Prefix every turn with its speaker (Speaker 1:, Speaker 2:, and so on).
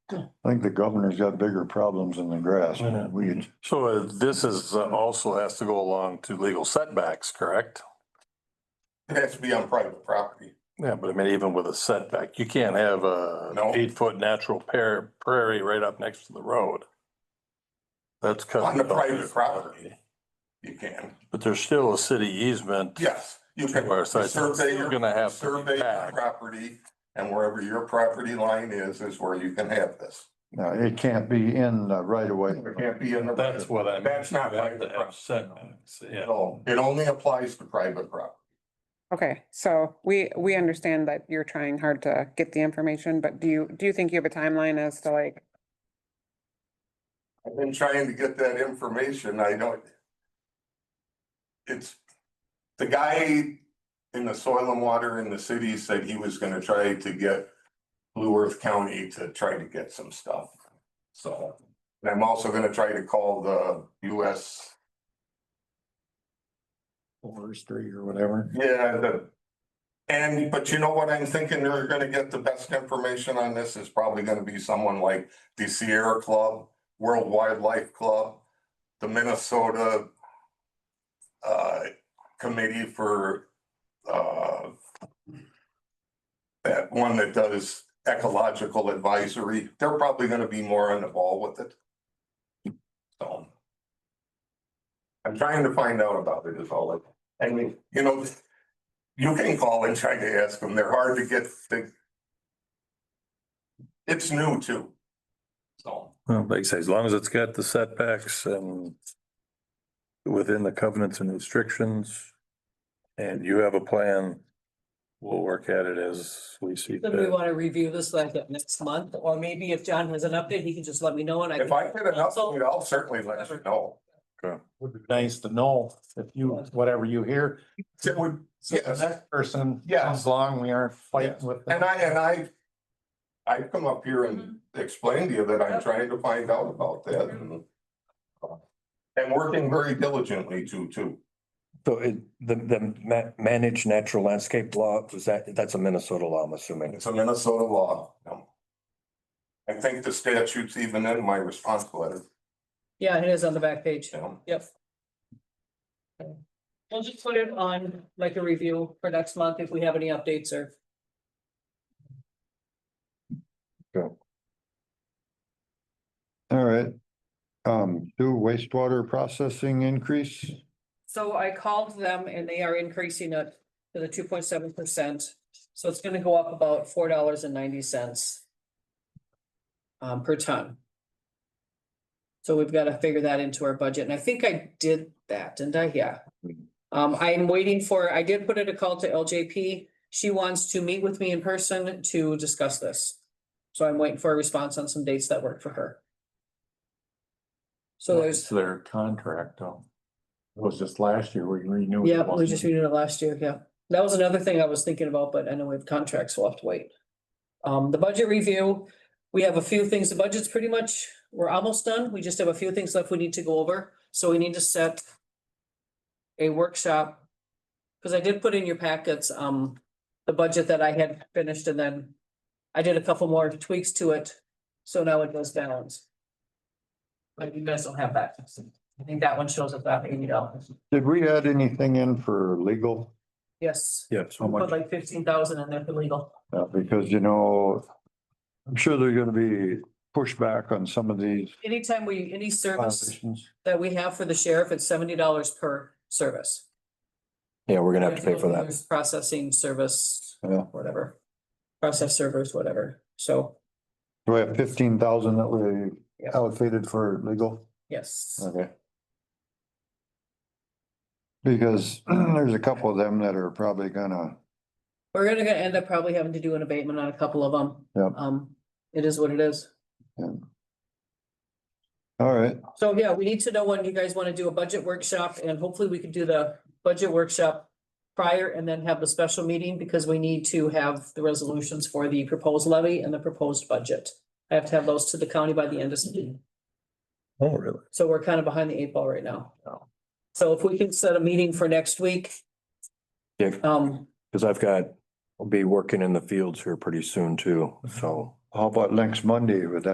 Speaker 1: I think the governor's got bigger problems than the grass.
Speaker 2: I know.
Speaker 1: We could,
Speaker 3: So uh, this is uh, also has to go along to legal setbacks, correct?
Speaker 4: It has to be on private property.
Speaker 3: Yeah, but I mean, even with a setback, you can't have a
Speaker 4: No.
Speaker 3: eight foot natural pear prairie right up next to the road. That's. cut
Speaker 4: On the
Speaker 3: off.
Speaker 4: private property. You can,
Speaker 3: But there's still a city easement.
Speaker 4: yes, you can.
Speaker 3: Where it's like,
Speaker 4: survey your-
Speaker 3: you're gonna have to
Speaker 4: Survey your
Speaker 3: back.
Speaker 4: property and wherever your property line is, is where you can have this.
Speaker 1: no, it can't be in the right of way.
Speaker 4: It can't be in the.
Speaker 3: That's what I mean.
Speaker 4: That's not
Speaker 3: You have to
Speaker 4: private
Speaker 3: have
Speaker 4: property.
Speaker 3: setbacks, yeah.
Speaker 4: No, It only applies to private property.
Speaker 5: Okay, so we, we understand that you're trying hard to get the information, but do you, do you think you have a timeline as to like,
Speaker 4: I've been trying to get that information. I don't. It's, the guy in the soil and water in the city said he was gonna try to get Blue Earth County to try to get some stuff. So, and I'm also gonna try to call the US,
Speaker 1: Forestry or whatever.
Speaker 4: yeah, the. And, but you know what I'm thinking? They're gonna get the best information on this is probably gonna be someone like the Sierra Club, World Wildlife Club, the Minnesota uh, committee for uh, that one that does ecological advisory. They're probably gonna be more on the ball with it. So I'm trying to find out about it is all it, I mean, you know, you can call and try to ask them. They're hard to get. They- It's new too. So.
Speaker 3: Well, like I say, as long as it's got the setbacks and within the covenants and restrictions, and you have a plan, we'll work at it as we see
Speaker 6: Then we
Speaker 3: fit.
Speaker 6: want to review this like at next month, or maybe if John has an update, he can just let me know and I.
Speaker 4: If
Speaker 6: can-
Speaker 4: I get an update, I'll certainly let you know.
Speaker 2: Would be nice to know if you, whatever you hear,
Speaker 4: It would,
Speaker 2: so the
Speaker 4: Yes.
Speaker 2: next person
Speaker 4: Yes.
Speaker 2: comes along, we aren't
Speaker 4: Yes.
Speaker 2: fighting with
Speaker 4: and
Speaker 2: them.
Speaker 4: I, and I, I've come up here and explained to you that I'm trying to find out about that. and- uh, And working very diligently to, too.
Speaker 7: So it, the, the ma- managed natural landscape law, was that, that's a Minnesota law, I'm assuming.
Speaker 4: It's a Minnesota law. um, I think the statute's even in my response letter.
Speaker 6: Yeah, it is on the back page.
Speaker 4: you know.
Speaker 6: Yep. Okay. We'll just put it on like a review for next month if we have any updates or.
Speaker 1: All right. Um, do wastewater processing increase?
Speaker 6: So I called them and they are increasing it to the two point seven percent. So it's gonna go up about four dollars and ninety cents. Um, per ton. So we've gotta figure that into our budget and I think I did that, didn't I? Yeah. Um, I'm waiting for, I did put in a call to LJP. She wants to meet with me in person to discuss this. So I'm waiting for a response on some dates that work for her. So there's.
Speaker 2: Their contract, though. It was just last year we renewed.
Speaker 6: Yeah, we just renewed it last year, yeah. That was another thing I was thinking about, but I know we have contracts, we'll have to wait. Um, the budget review, we have a few things, the budget's pretty much, we're almost done, we just have a few things left we need to go over, so we need to set a workshop, because I did put in your packets, um, the budget that I had finished and then I did a couple more tweaks to it, so now it goes balance. But you guys don't have that, I think that one shows up that eighty dollars,
Speaker 1: Did we add anything in for legal?
Speaker 6: yes.
Speaker 7: Yes.
Speaker 1: How much?
Speaker 6: Put like fifteen thousand in there for legal.
Speaker 1: Uh, because you know, I'm sure there's gonna be pushback on some of these
Speaker 6: Anytime we, any service
Speaker 1: violations.
Speaker 6: that we have for the sheriff, it's seventy dollars per service.
Speaker 7: Yeah, we're gonna have to pay for that.
Speaker 6: There's Processing service,
Speaker 1: Yeah.
Speaker 6: whatever. Process servers, whatever. So,
Speaker 1: Do we have fifteen thousand that we
Speaker 6: Yeah.
Speaker 1: allocated for legal?
Speaker 6: yes,
Speaker 1: Okay. Because there's a couple of them that are probably gonna,
Speaker 6: we're gonna gonna end up probably having to do an abatement on a couple of them.
Speaker 1: Yep.
Speaker 6: Um, it is what it is.
Speaker 1: all right,
Speaker 6: So, yeah, we need to know when you guys want to do a budget workshop and hopefully we could do the budget workshop prior and then have the special meeting because we need to have the resolutions for the proposed levy and the proposed budget. I have to have those to the county by the end of September.
Speaker 3: Oh, really?
Speaker 6: So we're kind of behind the eight ball right now.
Speaker 3: Oh.
Speaker 6: So if we can set a meeting for next week.
Speaker 7: Yeah.
Speaker 6: Um,
Speaker 7: Cause I've got, I'll be working in the fields here pretty soon too, so.
Speaker 1: how about next Monday with that?